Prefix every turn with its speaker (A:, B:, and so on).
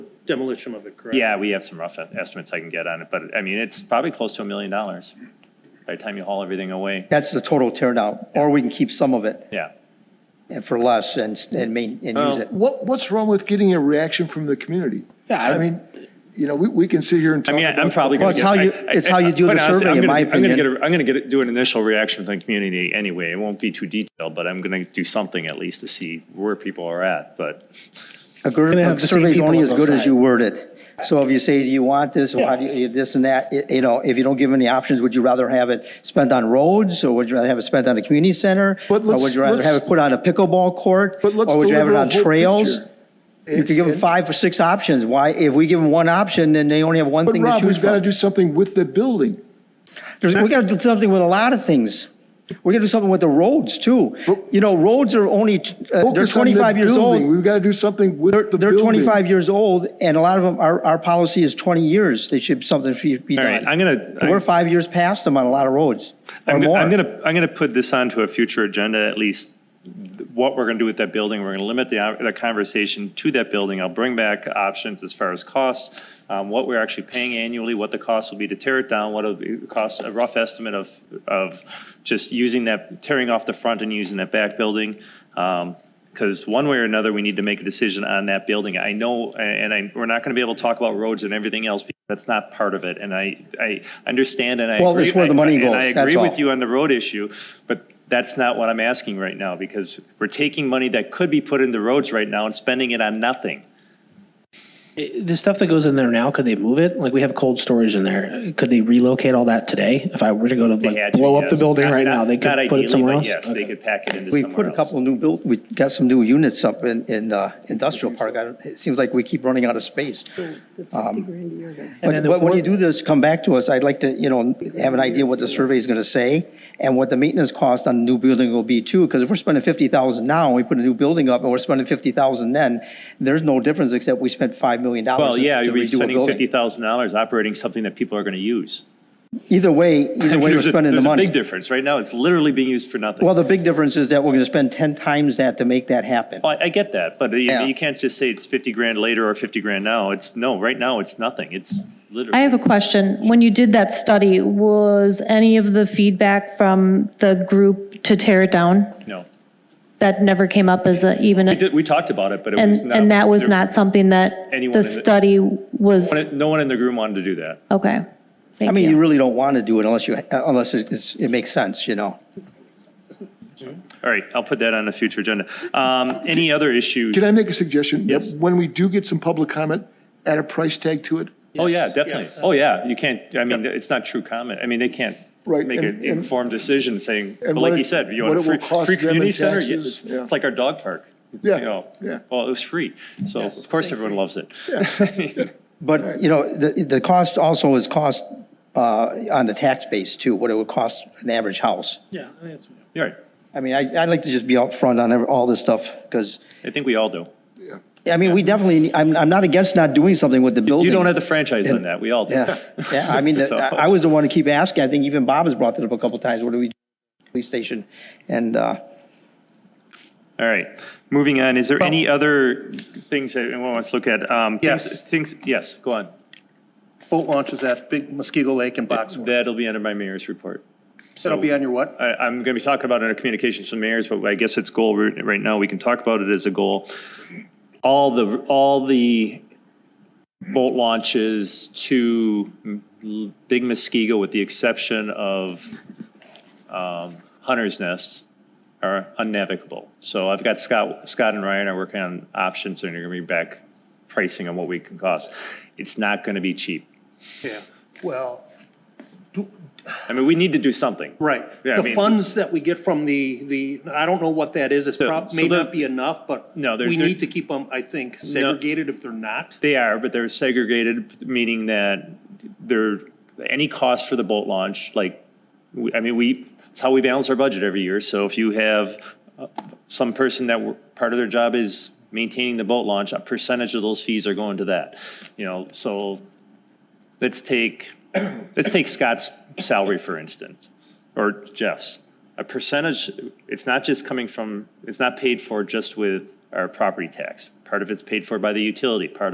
A: demolition of it, correct?
B: Yeah, we have some rough e-, estimates I can get on it, but I mean, it's probably close to a million dollars by the time you haul everything away.
C: That's the total tear down, or we can keep some of it
B: Yeah.
C: and for less and, s- and main, and use
B: Well-
C: it.
D: What, what's wrong with getting a reaction from the community?
A: Yeah, I-
D: I mean, you know, we, we can sit here and
B: I
D: talk
B: mean,
D: about.
B: I'm probably
C: Well,
B: going
C: it's
B: to
C: how you- it's how you do the survey, in my opinion.
B: I'm going to do an initial reaction from the community anyway. It won't be too detailed, but I'm going to do something at least to see where people are at, but.
C: A gr-
A: Gonna
C: a
A: have the same
C: survey's
A: people
C: only
A: on
C: as
A: both
C: good as
A: sides.
C: you word it. So if you say, do you want this, or how do you, this and that, y- you know, if you don't give any options, would you rather have it spent on roads, or would you rather have it spent on a community center? Or
D: But let's-
C: would you rather
D: let's-
C: have it put on a pickleball court?
D: But let's
C: Or Oh, would you have it
D: deliver a
C: on
D: whole
C: trails?
D: picture.
C: You could give them
D: And-
C: five or six options. Why, if we give them one option, then they only have one
D: But
C: thing to
D: Rob,
C: choose
D: we've got to
C: from.
D: do something with the building.
C: There's, we gotta do something with a lot of things. We gotta do something with the roads too.
D: But-
C: You know, roads are only, t- uh, they're
D: Focus on the
C: twenty-five years
D: building.
C: old.
D: We've got to do something with
C: They're,
D: the
C: they're
D: building.
C: twenty-five years old and a lot of them, our, our policy is twenty years. They should, something should be
B: All right, I'm
C: done.
B: going to.
C: We're five years past them on a lot of roads or
B: I'm,
C: more.
B: I'm gonna, I'm gonna put this onto a future agenda, at least what we're gonna do with that building. We're gonna limit the, the conversation to that building. I'll bring back options as far as cost, um, what we're actually paying annually, what the cost will be to tear it down, what it'll be- cost, a rough estimate of, of just using that, tearing off the front and using that back building. Um, because one way or another, we need to make a decision on that building. I know, and I, we're not going to be able to talk about roads and everything else because that's not part of it. And I, I understand and I.
C: Well, that's
B: agree-
C: where the
B: I-
C: money goes,
B: And I
C: that's
B: agree
C: all.
B: with you on the road issue, but that's not what I'm asking right now because we're taking money that could be put into roads right now and spending it on nothing.
E: It- The stuff that goes in there now, could they move it? Like, we have cold storage in there. Could they relocate all that today? If I were to go to
B: They
E: like
B: had to,
E: blow up the
B: yes.
E: building
B: Not-
E: right now,
B: not-
E: they
B: not
E: could put
B: ideally,
E: it somewhere
B: but
E: else?
B: Yes, they
E: Okay.
B: could pack it into
C: We
B: somewhere else.
C: put a couple of new build, we got some new units up in, in, uh, industrial park. I don't- It seems like we keep running out of space. Um, But,
E: then the
C: but when you
E: fourth-
C: do this, come back to us. I'd like to, you know, have an idea what the survey is gonna say and what the maintenance cost on the new building will be too. Because if we're spending fifty thousand now, and we put a new building up and we're spending fifty thousand then, there's no difference except we spent five million dollars
B: Well,
C: to
B: yeah,
C: redo
B: we're
C: a
B: spending fifty
C: building.
B: thousand dollars operating something that people are going to use.
C: Either way, either way, we're
B: There's a-
C: spending the
B: There's a
C: money.
B: big difference. Right now, it's literally being used for nothing.
C: Well, the big difference is that we're gonna spend ten times that to make that happen.
B: Well, I get that, but you,
C: Yeah.
B: you can't just say it's fifty grand later or fifty grand now. It's, no, right now, it's nothing. It's
F: I
B: literally.
F: have a question. When you did that study, was any of the feedback from the group to tear it down?
B: No.
F: That never came up as a, even,
B: We did, we talked about it, but it was
F: and,
B: not.
F: and that was
B: there-
F: not something that
B: Anyone in
F: the
B: the-
F: study was,
B: No one in the room wanted to do that.
F: okay.
C: I
F: Thank
C: mean, you
F: you.
C: really don't wanna do it unless you, unless it's, it makes sense, you know?
B: All right, I'll put that on a future agenda. Um, Any other issues?
D: Can I make a suggestion? That
B: Yes.
D: When we do get some public comment, add a price tag to it.
B: Oh, yeah, definitely. Oh, yeah, you can't, I mean, it's not true comment. I mean, they can't
D: Right,
B: make
D: and-
B: an
D: and-
B: informed decision saying, but
D: and
B: like
D: what
B: you
D: it-
B: said, you
D: what
B: want a
D: it will
B: free,
D: cost
B: free
D: them in
B: community center? Yeah,
D: taxes,
B: It's
D: yeah.
B: it's like our dog park. It's,
D: Yeah,
B: you know,
D: yeah.
B: Well, it was free, so of course everyone loves it.
C: But, you know, the, the cost also is cost uh, on the tax base too, what it would cost an average house.
A: Yeah, I think that's-
B: You're right.
C: I mean, I, I'd like to just be upfront on every- all this stuff, because,
B: I think we all do.
C: I mean, we definitely, I'm, I'm not against not doing something with the building.
B: You don't have the franchise on that, we all do.
C: Yeah, yeah, I mean, the-
B: So-
C: I I was the one to keep asking, I think even Bob has brought that up a couple times, what do we, do with the police station? And, uh,
B: All right, moving on, is there any other things that anyone wants to look at? Um, things-
A: Yes.
B: Things, yes, go on.
A: Boat launches at Big Muskego Lake and Boxwood.
B: That'll be under my mayor's report.
A: That'll be on your what?
B: I, I'm going to be talking about it under communications from mayors, but I guess it's goal right right now. We can talk about it as a goal. All the, all the boat launches to M- Big Muskego, with the exception of um, Hunter's Nest, are unnavigable. So I've got Scott, Scott and Ryan are working on options, and they're going to be back pricing on what we can cost. It's not going to be cheap.
A: Yeah, well, do-
B: I mean, we need to do something.
A: right.
B: Yeah, I
A: The
B: mean-
A: funds that we get from the, the, I don't know what that is, it's
B: So-
A: prob,
B: so
A: may
B: the-
A: not be enough, but
B: No, they're-
A: we
B: they're-
A: need to keep them, I think, segregated if they're not.
B: They are, but they're segregated, meaning that there, any cost for the boat launch, like, we- I mean, we, it's how we balance our budget every year. So if you have uh, some person that, wor- part of their job is maintaining the boat launch, a percentage of those fees are going to that. You know, so let's take, let's take Scott's salary, for instance, or Jeff's. A percentage, it's not just coming from, it's not paid for just with our property tax. Part of it's paid for by the utility, part